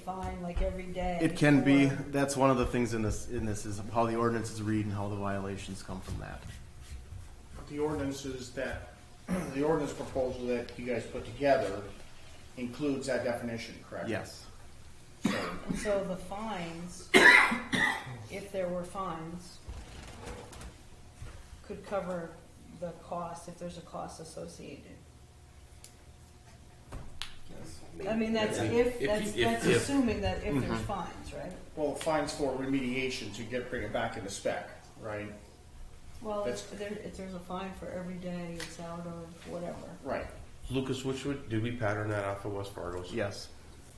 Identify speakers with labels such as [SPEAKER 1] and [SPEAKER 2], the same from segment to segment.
[SPEAKER 1] fine like every day.
[SPEAKER 2] It can be.
[SPEAKER 1] or-
[SPEAKER 2] That's one of the things in this, in this is how the ordinances read and how the violations come from that.
[SPEAKER 3] The ordinances that, the ordinance proposal that you guys put together includes that definition, correct?
[SPEAKER 2] Yes.
[SPEAKER 1] And so the fines, if there were fines, could cover the cost if there's a cost associated. I mean, that's if,
[SPEAKER 4] If-
[SPEAKER 1] that's,
[SPEAKER 4] if-
[SPEAKER 1] that's
[SPEAKER 4] if-
[SPEAKER 1] assuming that if
[SPEAKER 2] Mm-hmm.
[SPEAKER 1] there's fines, right?
[SPEAKER 3] Well, fines for remediation to get, bring it back into spec, right?
[SPEAKER 1] Well, if
[SPEAKER 3] That's-
[SPEAKER 1] there, if there's a fine for every day it's out of whatever.
[SPEAKER 3] Right.
[SPEAKER 4] Lucas, which would, did we pattern that off of West Fargo's?
[SPEAKER 2] Yes.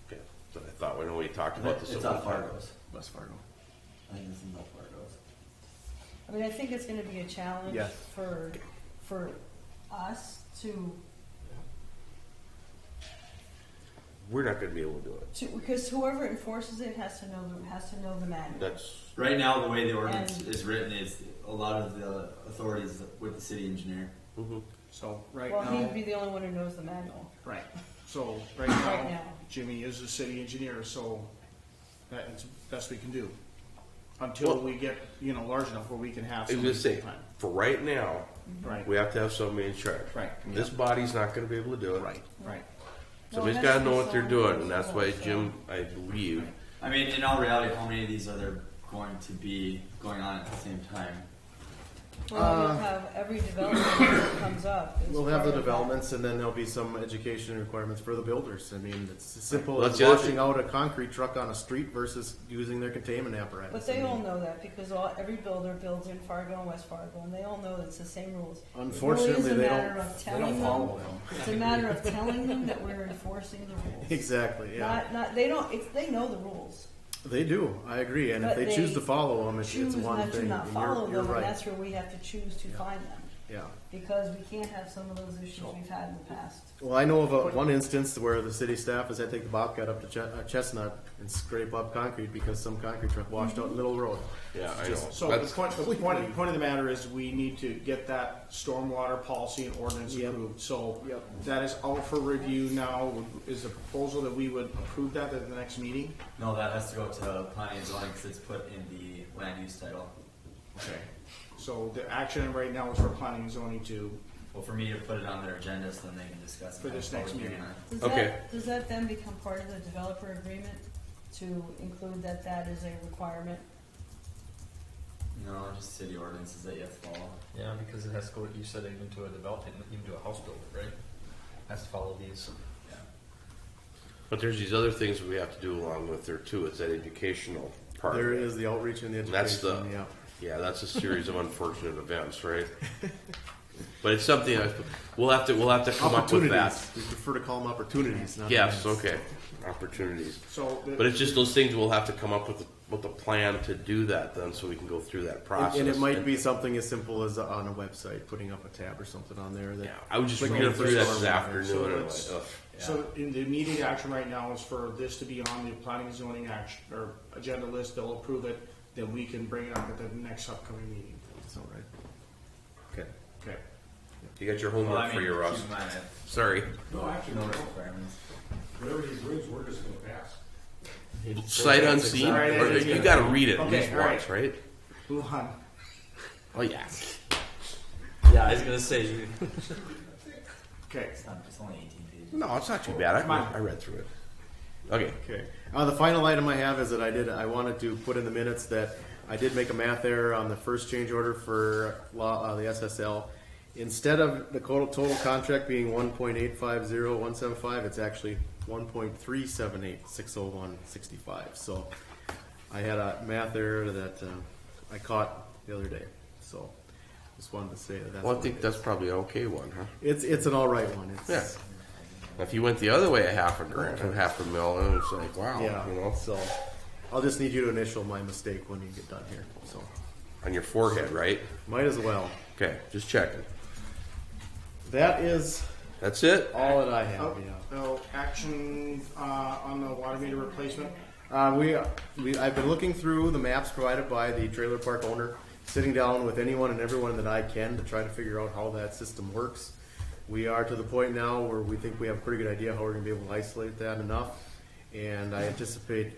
[SPEAKER 4] Okay, so I thought, when we talked about this.
[SPEAKER 5] It's
[SPEAKER 4] at
[SPEAKER 5] on
[SPEAKER 4] one time.
[SPEAKER 5] Fargo's.
[SPEAKER 2] West Fargo.
[SPEAKER 5] I think it's in North Fargo's.
[SPEAKER 1] I mean, I think it's gonna be a challenge
[SPEAKER 2] Yes.
[SPEAKER 1] for, for us to,
[SPEAKER 4] We're not gonna be able to do it.
[SPEAKER 1] to, because whoever enforces it has to know, the has to know the manual.
[SPEAKER 4] That's,
[SPEAKER 5] Right now, the way the ordinance
[SPEAKER 1] And-
[SPEAKER 5] is written is a lot of the authorities with the city engineer.
[SPEAKER 2] Mm-hmm.
[SPEAKER 4] mhm.
[SPEAKER 3] So right
[SPEAKER 1] Well,
[SPEAKER 3] now,
[SPEAKER 1] he'd be the only one who knows the manual.
[SPEAKER 3] right. So right
[SPEAKER 1] Right
[SPEAKER 3] now,
[SPEAKER 1] now.
[SPEAKER 3] Jimmy is the city engineer, so that is best we can do until
[SPEAKER 4] Well-
[SPEAKER 3] we get you know large enough where we can have.
[SPEAKER 4] I was
[SPEAKER 3] somebody
[SPEAKER 4] gonna say,
[SPEAKER 3] full-time.
[SPEAKER 4] for right now,
[SPEAKER 3] Right.
[SPEAKER 4] we have to have somebody in charge.
[SPEAKER 3] Right.
[SPEAKER 4] This body's not gonna be able to do it.
[SPEAKER 2] Right.
[SPEAKER 3] Right.
[SPEAKER 4] Somebody's gotta know what they're doing, and that's why Jim, I believe,
[SPEAKER 5] I mean, in all reality, how many of these are there going to be going on at the same time?
[SPEAKER 1] Well, you'll have every development that comes up. is
[SPEAKER 2] uh, We'll have the
[SPEAKER 1] part of that.
[SPEAKER 2] developments and then there'll be some education requirements for the builders. I mean, it's as simple
[SPEAKER 4] Well,
[SPEAKER 2] as
[SPEAKER 4] that's the other
[SPEAKER 2] washing
[SPEAKER 4] thing.
[SPEAKER 2] out a concrete truck on a street versus using their containment apparatus.
[SPEAKER 1] But they
[SPEAKER 2] I mean,
[SPEAKER 1] all know that because all, every builder builds in Fargo and West Fargo, and they all know it's the same rules. It really is
[SPEAKER 2] Unfortunately,
[SPEAKER 1] a
[SPEAKER 2] they
[SPEAKER 1] matter
[SPEAKER 2] don't-
[SPEAKER 1] of
[SPEAKER 2] they
[SPEAKER 1] telling
[SPEAKER 2] don't follow them.
[SPEAKER 1] It's a matter of telling them that we're enforcing the rules.
[SPEAKER 2] Exactly, yeah.
[SPEAKER 1] Not, not, they don't, it's, they know the rules.
[SPEAKER 2] They do, I agree. And if
[SPEAKER 1] But
[SPEAKER 2] they
[SPEAKER 1] they
[SPEAKER 2] choose to follow them, it's
[SPEAKER 1] Choose
[SPEAKER 2] it's one
[SPEAKER 1] not to
[SPEAKER 2] thing.
[SPEAKER 1] not
[SPEAKER 2] And
[SPEAKER 1] follow
[SPEAKER 2] You're you're
[SPEAKER 1] them, and
[SPEAKER 2] right,
[SPEAKER 1] that's where we have to choose to find them.
[SPEAKER 2] yeah.
[SPEAKER 1] Because we can't have some of those issues we've had in the past.
[SPEAKER 2] Well, I know of a, one instance where the city staff is, I take the Bobcat up to Ch- uh, Chestnut and scrape up concrete because some concrete truck washed out Little Road.
[SPEAKER 4] yeah, I
[SPEAKER 2] Just-
[SPEAKER 4] know.
[SPEAKER 3] So the
[SPEAKER 4] That's-
[SPEAKER 3] point, the point, the point of the matter is we need to get that stormwater policy and ordinance
[SPEAKER 2] Yep.
[SPEAKER 3] approved. So
[SPEAKER 2] Yep.
[SPEAKER 3] that is out for review now. Is the proposal that we would approve that at the next meeting?
[SPEAKER 5] No, that has to go to planning and zoning because it's put in the land use title.
[SPEAKER 3] Okay. So the action right now is for planning and zoning to,
[SPEAKER 5] Well, for me to put it on their agenda so then they can discuss it.
[SPEAKER 3] For this next meeting.
[SPEAKER 1] Does
[SPEAKER 4] Okay.
[SPEAKER 1] that, does that then become part of the developer agreement to include that that is a requirement?
[SPEAKER 5] No, just city ordinances that you have to follow.
[SPEAKER 6] Yeah, because it has to go, you said even to a development, even to a house builder, right? Has to follow these.
[SPEAKER 5] Yeah.
[SPEAKER 4] But there's these other things we have to do along with there too, it's that educational part.
[SPEAKER 2] There is the outreach and the education.
[SPEAKER 4] That's the-
[SPEAKER 2] Yeah.
[SPEAKER 4] Yeah, that's a series of unfortunate events, right? But it's something I, we'll have to, we'll have to come up with that.
[SPEAKER 2] Opportunities. We prefer to call them opportunities, not
[SPEAKER 4] Yes,
[SPEAKER 2] events.
[SPEAKER 4] okay, opportunities.
[SPEAKER 3] so. the-
[SPEAKER 4] But it's just those things we'll have to come up with, with a plan to do that then, so we can go through that
[SPEAKER 2] And,
[SPEAKER 4] process.
[SPEAKER 2] and it might be something as simple as uh, on a website, putting up a tab or something on there that.
[SPEAKER 4] Yeah, I was just
[SPEAKER 2] Like
[SPEAKER 4] reading
[SPEAKER 2] the
[SPEAKER 4] through that
[SPEAKER 2] first
[SPEAKER 4] this
[SPEAKER 2] one.
[SPEAKER 3] So
[SPEAKER 4] afternoon and I'm like,
[SPEAKER 3] it's-
[SPEAKER 4] ugh.
[SPEAKER 3] So in the immediate action right now is for this to be on the planning and zoning action, or agenda list, they'll approve it, then we can bring it up at the next upcoming meeting.
[SPEAKER 2] It's all right. Okay.
[SPEAKER 3] Okay.
[SPEAKER 4] You got your
[SPEAKER 5] Well, I
[SPEAKER 4] homework
[SPEAKER 5] mean,
[SPEAKER 4] for you, Russ.
[SPEAKER 5] keep in mind that
[SPEAKER 4] Sorry.
[SPEAKER 7] No, actually,
[SPEAKER 5] No requirements.
[SPEAKER 7] whatever he brings, we're just gonna pass.
[SPEAKER 4] Sight unseen,
[SPEAKER 3] Right,
[SPEAKER 4] or
[SPEAKER 3] it's-
[SPEAKER 4] you gotta read it at
[SPEAKER 3] Okay,
[SPEAKER 4] least
[SPEAKER 3] all right.
[SPEAKER 4] once, right?
[SPEAKER 3] Move on.
[SPEAKER 4] Oh, yeah.
[SPEAKER 5] Yeah, I was gonna say you.
[SPEAKER 3] Okay.
[SPEAKER 5] It's not. It's only 18 pages.
[SPEAKER 4] No, it's not too bad. I,
[SPEAKER 3] Come on.
[SPEAKER 4] I read through it. Okay.
[SPEAKER 2] Okay. Uh, the final item I have is that I did, I wanted to put in the minutes that I did make a math error on the first change order for law, uh, the SSL. Instead of the total, total contract being one point eight five zero one seven five, it's actually one point three seven eight six oh one sixty-five. So I had a math error that, uh, I caught the other day, so just wanted to say that that's.
[SPEAKER 4] Well, I
[SPEAKER 2] what
[SPEAKER 4] think
[SPEAKER 2] it
[SPEAKER 4] that's
[SPEAKER 2] is.
[SPEAKER 4] probably an okay one, huh?
[SPEAKER 2] It's, it's an all right one.
[SPEAKER 4] Yeah.
[SPEAKER 2] It's,
[SPEAKER 4] If you went the other way, a half a grand, a half a mil, and it's like, wow,
[SPEAKER 2] yeah,
[SPEAKER 4] Oh, you know,
[SPEAKER 2] so I'll just need you to initial my mistake when you get done here, so.
[SPEAKER 4] on your forehead, right?
[SPEAKER 2] Might as well.
[SPEAKER 4] Okay, just checking.
[SPEAKER 2] That is
[SPEAKER 4] That's it.
[SPEAKER 2] all that I have.
[SPEAKER 3] Oh, no, action, uh, on the water meter replacement.
[SPEAKER 2] Uh, we, we, I've been looking through the maps provided by the trailer park owner, sitting down with anyone and everyone that I can to try to figure out how that system works. We are to the point now where we think we have a pretty good idea how we're going to be able to isolate that enough. And I anticipate